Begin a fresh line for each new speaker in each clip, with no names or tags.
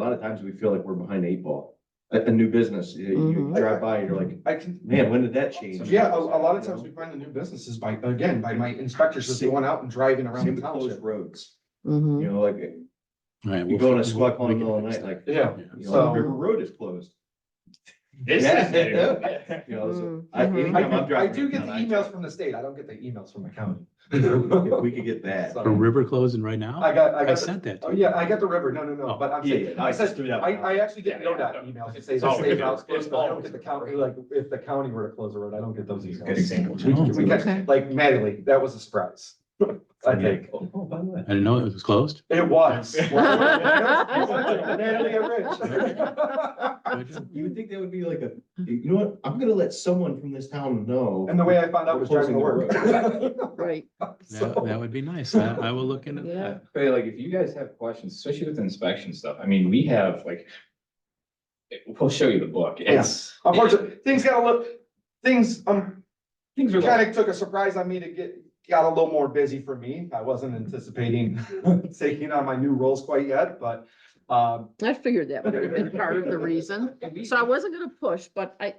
A lot of times we feel like we're behind the eight ball. At the new business, you- you
Mhm.
drive by, you're like,
I can,
man, when did that change?
yeah, a, a lot of times we find the new businesses by, again, by my inspectors just going out and driving around
Same
the
with closed
township.
roads,
Mhm.
you know, like,
Right.
you go on a squat call in the middle of the night, like,
Yeah,
you
So-
know, River Road is closed.
This is new.
Yeah. You know, so
Mm,
I-
mhm.
I
anytime I'm
do, I
driving.
do get the
around, I-
emails from the state. I don't get the emails from the county. Mm.
If we could get that.
So-
A river closing right now?
I got, I
I
got, the-
sent that
oh
to you.
yeah, I got the river. No, no, no,
Oh,
but I'm
Yeah,
saying,
yeah,
I
I just
said,
threw that.
I,
one out.
I actually get
Yeah, yeah.
NODOT emails that say
It's
the
always-
state house
it's
closed, but I don't
always
get the
a
county,
river.
like, if the county were to close the road, I don't get those
You're getting
emails.
sandwiched.
Oh.
We
Okay.
catch, like Maddie, that was a surprise, I think.
Oh, oh, by the way.
I didn't know it was closed.
It was. Natalie and Rich.
You would think that would be like a, you know what, I'm gonna let someone from this town know.
And the way I found out was driving to work.
Mm-hmm. Right.
That, that would be nice. I, I will look into
Yeah.
that.
But like, if you guys have questions, especially with inspection stuff, I mean, we have like. it- We'll show you the book. It's.
Unfortunately, things got a little, things, um,
Things are
kind
like,
of took a surprise on me to get, got a little more busy for me. I wasn't anticipating taking on my new roles quite yet, but, um,
I figured that would have been part of the reason. So I wasn't gonna push, but I,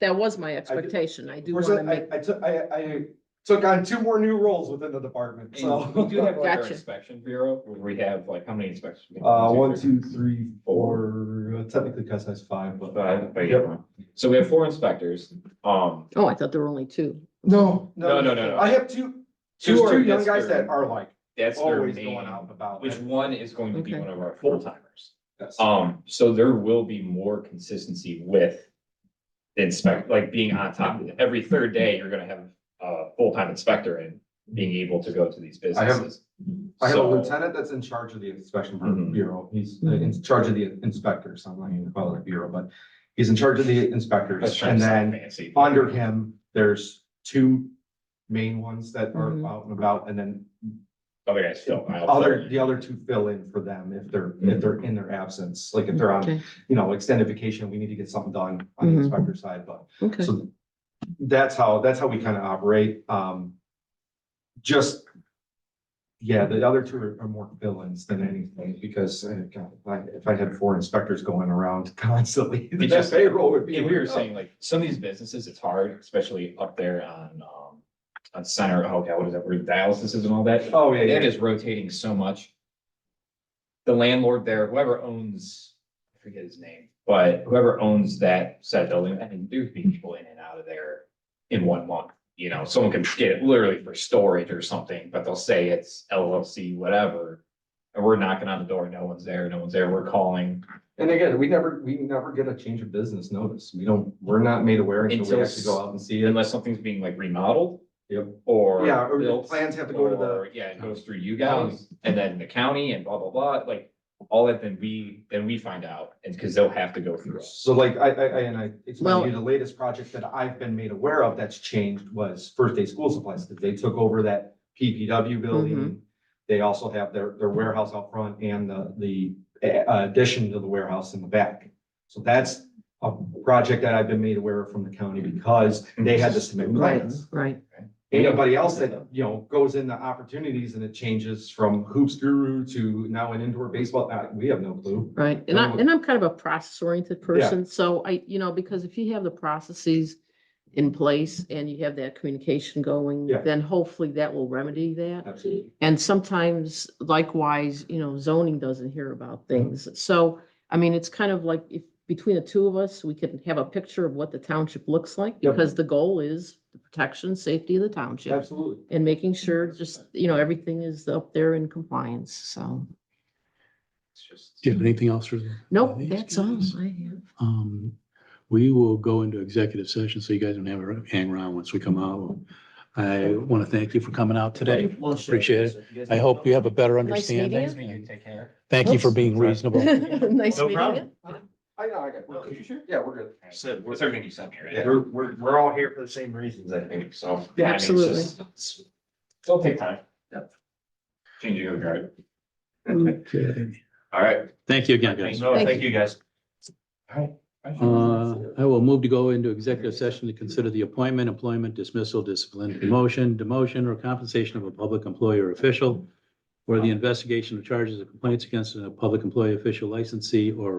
that was my expectation. I do
Whereas
wanna
I,
make,
I- I took, I, I took on two more new roles within the department,
and we do
so.
have like our
Gotcha.
inspection bureau, where we have like, how many inspections? we have?
Uh, one, two, three, four, uh, technically cut size five, but.
Five, but yeah. So we have four inspectors, um.
oh, I thought there were only two.
No,
No, no, no, no.
I have two,
Two
two,
are-
two young
that's
guys
their-
that are like
That's their
always
main,
going out and about.
which one is going to be
Okay.
one of our full timers.
Yes.
Um, so there will be more consistency with the inspect, like being on top of it. Every third day, you're gonna have a full-time inspector and being able to go to these
I have-
businesses.
I have a
So-
lieutenant that's in charge of the inspection bu-
Mhm.
bureau. He's in charge of the inspectors. I'm not even calling it a bureau, but he's in charge of the
That's
inspectors.
trying
And
to sound
then
fancy.
under him, there's two main ones that are
Mhm.
out and about and then
Other guys fill out.
other, the other two fill in for them if they're,
Mm-hmm.
if they're in their absence, like if they're on,
Okay,
you know, extended vacation, we need to get something done on the
Mhm.
inspector side, but
okay.
so that's how, that's how we kind of operate. Um, just, yeah, the other two are are more villains than anything because uh, God, if I- if I had four inspectors going around constantly,
It
that
just-
payroll would be.
Yeah, we were saying like, some of these businesses, it's hard, especially up there on, um, on center, oh, God, what is that, where dialysis is and all that.
Oh, yeah,
That
yeah.
is rotating so much. The landlord there, whoever owns, I forget his name, but whoever owns that said building, I mean, there'd be people in and out of there in one month. You know, someone could get it literally for storage or something, but they'll say it's LLC, whatever. And we're knocking on the door, no one's there, no one's there, we're calling
And again, we never, we never get a change of business notice. We don't, we're not made aware until
Until
we
s-
actually go out and see it.
unless something's being like remodeled.
Yep.
Or.
Yeah, or the
built,
plans have to go to the-
or, Yeah, it goes through you guys and then the county and blah, blah, blah, like all that, then we, then we find out. And because they'll have to go through. us.
So like I, I, I- and I explained to
Well-
you the latest project that I've been made aware of that's changed was First Day School Supplies. They took over that PPW
Mm-hmm.
building. They also have their, their warehouse out front and the, the uh, addition to the warehouse in the back. So that's a project that I've been made aware of from the county because they had to submit plans.
Right,
Anybody else that, you know, goes into opportunities and it changes from hoops guru to now an indoor baseball, uh, we have no clue.
right. And I,
No.
and I'm kind of a process oriented person, so I, you know, because if you have the processes in place and you have that communication going,
Yeah.
then hopefully that will remedy that.
Absolutely.
And sometimes likewise, you know, zoning doesn't hear about things. So, I mean, it's kind of like if between the two of us, we can have a picture of what the township looks like
Yep.
because the goal is the protection, safety of the township
Absolutely.
and making sure just, you know, everything is up there in compliance. So,
It's
Do
just.
you have anything else for?
nope,
these
that's all
guys?
I have.
Um, we will go into executive session, so you guys don't have to hang around once we come out. I want to thank you for coming out today. Appreciate
it.
I hope you have a better
Nice meeting you.
understanding.
take care.
Thank you for being
Sorry.
reasonable.
Nice
No
meeting you.
problem.
I know, I got.
No, Oh, you sure?
Yeah, we're good.
Said, we're,
It's everything you sent me, right?
yeah, we're, we're, we're all here for the same reasons, I think, so.
Yeah, I mean, it's
Absolutely.
just- it's- It'll take time.
Yep.
Changing your guard.
Okay.
All right,
Thank you again, guys.
no,
Thank
thank you guys.
Uh, I will move to go into executive session to consider the appointment, employment, dismissal, discipline, promotion, demotion, or compensation of a public employee or official or the investigation of charges or complaints against a public employee, official licensee, or